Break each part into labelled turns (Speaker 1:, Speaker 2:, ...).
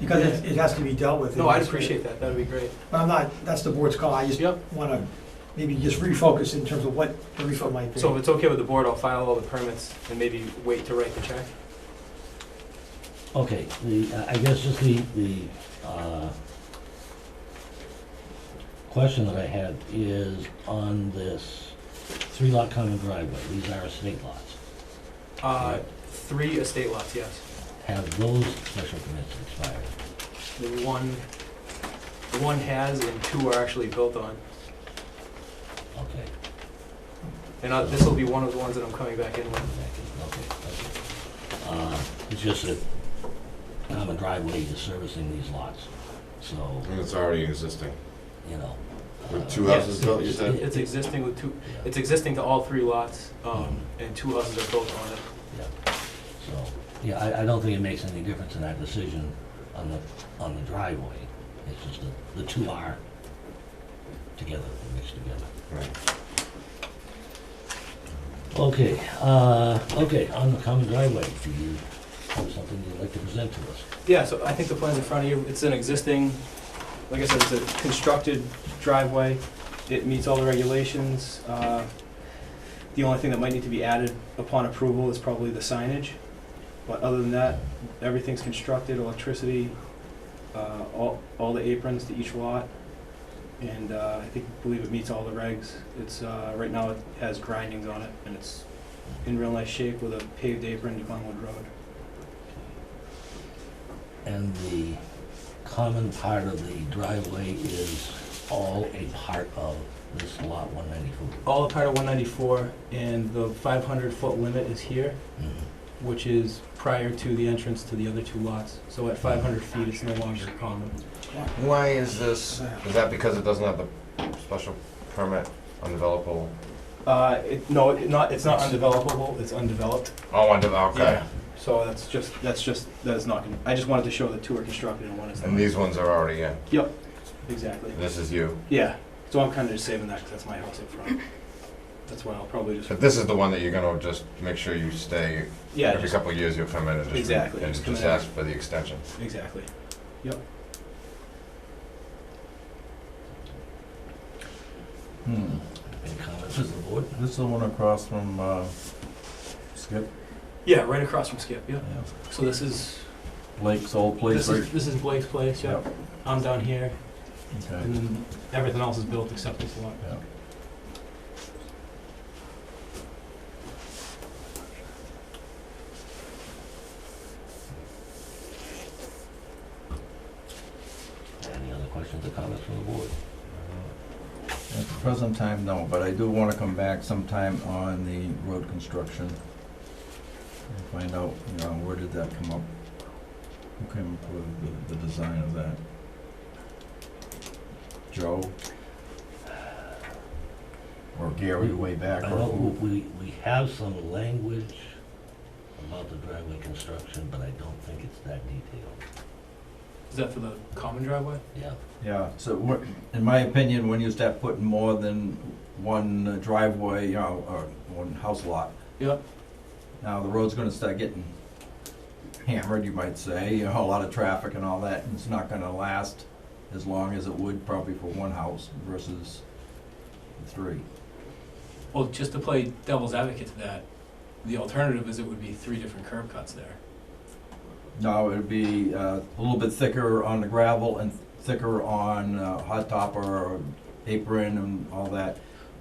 Speaker 1: because it, it has to be dealt with.
Speaker 2: No, I'd appreciate that, that'd be great.
Speaker 1: But I'm not, that's the board's call, I just
Speaker 2: Yep,
Speaker 1: wanna maybe just refocus in terms of what the refund might be.
Speaker 2: so if it's okay with the board, I'll file all the permits and maybe wait to write the check.
Speaker 3: Okay, the, uh, I guess just the, the, uh, question that I had is on this three lot common driveway, these are estate lots.
Speaker 2: Uh, three estate lots, yes.
Speaker 3: Have those special permits expired?
Speaker 2: The one, the one has and two are actually built on.
Speaker 3: Okay,
Speaker 2: And uh, this will be one of the ones that I'm coming back in with.
Speaker 3: thank you, okay, okay. Uh, it's just that common driveway is servicing these lots, so,
Speaker 4: And it's already existing.
Speaker 3: you know.
Speaker 4: With
Speaker 3: uh,
Speaker 4: two
Speaker 2: Yes.
Speaker 4: houses built, you said?
Speaker 2: It's existing with two,
Speaker 3: yeah.
Speaker 2: it's existing to all three lots, um, and two houses are built on it.
Speaker 3: So, yeah, I, I don't think it makes any difference in that decision on the, on the driveway. It's just that the two are together, mixed together.
Speaker 4: Right.
Speaker 3: Okay, uh, okay, on the common driveway, do you have something you'd like to present to us?
Speaker 2: Yeah, so I think the plan's in front of you, it's an existing, like I said, it's a constructed driveway, it meets all the regulations. Uh, The only thing that might need to be added upon approval is probably the signage, but other than that, everything's constructed, electricity, uh, all, all the aprons to each lot, and uh, I think, believe it meets all the regs. It's, uh, right now it has grindings on it, and it's in real nice shape with a paved apron to Glenwood Road.
Speaker 3: And the common part of the driveway is all a part of this lot one ninety-four.
Speaker 2: all a part of 194, and the 500-foot limit is here,
Speaker 3: Mm-hmm.
Speaker 2: which is prior to the entrance to the other two lots. So at 500 feet, it's no longer common.
Speaker 4: Why is this, is that because it doesn't have the special permit undevelopable?
Speaker 2: Uh, it, no, it not, it's not undevelopable, it's undeveloped.
Speaker 4: Oh, undeveloped, okay.
Speaker 2: Yeah. So that's just, that's just, that is not, gonna- I just wanted to show that two are constructed and one is
Speaker 4: And
Speaker 2: not.
Speaker 4: these ones are already in.
Speaker 2: Exactly.
Speaker 4: This is you.
Speaker 2: Yeah, so I'm kind of just saving that, because that's my house up front. That's why I'll probably just,
Speaker 4: But this is the one that you're gonna just make sure you stay,
Speaker 2: yeah,
Speaker 4: every
Speaker 2: just,
Speaker 4: couple of years you'll come in and just. re-
Speaker 2: Exactly,
Speaker 4: And
Speaker 2: just come
Speaker 4: just
Speaker 2: in.
Speaker 4: ask for the extension.
Speaker 2: exactly.
Speaker 5: Hmm.
Speaker 3: Any comments from the board?
Speaker 5: This is the one across from uh, Skip
Speaker 2: Yeah, right across from Skip, yeah.
Speaker 5: yeah.
Speaker 2: So this is,
Speaker 5: Blake's old place.
Speaker 2: this is, this is Blake's place, yeah. I'm down here,
Speaker 5: right?
Speaker 2: and
Speaker 5: Okay.
Speaker 2: then everything else is built except this lot.
Speaker 5: Yeah.
Speaker 3: Any other questions or comments from the board?
Speaker 5: At the present time, no, but I do want to come back sometime on the road construction and find out, you know, where did that come up? Who came up with the, the design of that? Joe? Or Gary way back?
Speaker 3: I
Speaker 5: or
Speaker 3: know
Speaker 5: who?
Speaker 3: we, we have some language about the driveway construction, but I don't think it's that detailed.
Speaker 2: Is that for the common driveway?
Speaker 3: Yeah.
Speaker 5: Yeah, so what, in my opinion, when you start putting more than one driveway, you know, or one house lot.
Speaker 2: Yep.
Speaker 5: Now, the road's gonna start getting hammered, you might say, you know, a lot of traffic and all that, and it's not gonna last as long as it would probably for one house versus three.
Speaker 2: Well, just to play devil's advocate to that, the alternative is it would be three different curb cuts there.
Speaker 5: No, it'd be uh, a little bit thicker on the gravel and thicker on uh, hot top or apron and all that,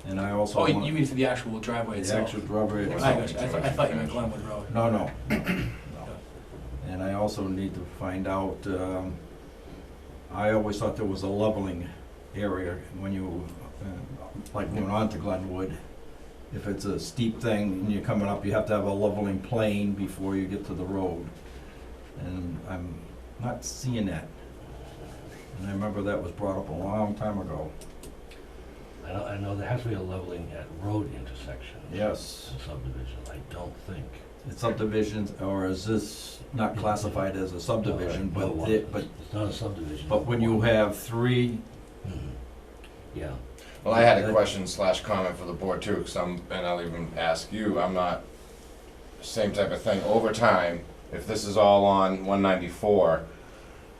Speaker 5: and I also
Speaker 2: Oh,
Speaker 5: want.
Speaker 2: you mean for the actual driveway
Speaker 5: The
Speaker 2: itself?
Speaker 5: actual driveway
Speaker 2: I
Speaker 5: itself.
Speaker 2: got you. I thought, I thought you meant Glenwood Road.
Speaker 5: No, no, no, no. And I also need to find out, um, I always thought there was a leveling area when you, uh, like going on to Glenwood. If it's a steep thing and you're coming up, you have to have a leveling plane before you get to the road. And I'm not seeing that. And I remember that was brought up a long time ago.
Speaker 3: I know, I know there has to be a leveling at road intersections.
Speaker 5: Yes.
Speaker 3: In subdivision, I don't think.
Speaker 5: It's subdivisions, or is this not classified as a subdivision,
Speaker 3: No,
Speaker 5: but it, but,
Speaker 3: It's not a subdivision.
Speaker 5: but when you have three
Speaker 3: Mhm. Yeah,
Speaker 4: Well, I had a question slash comment for the board too, because I'm, and I'll even ask you, I'm not, same type of thing, over time, if this is all on one ninety-four,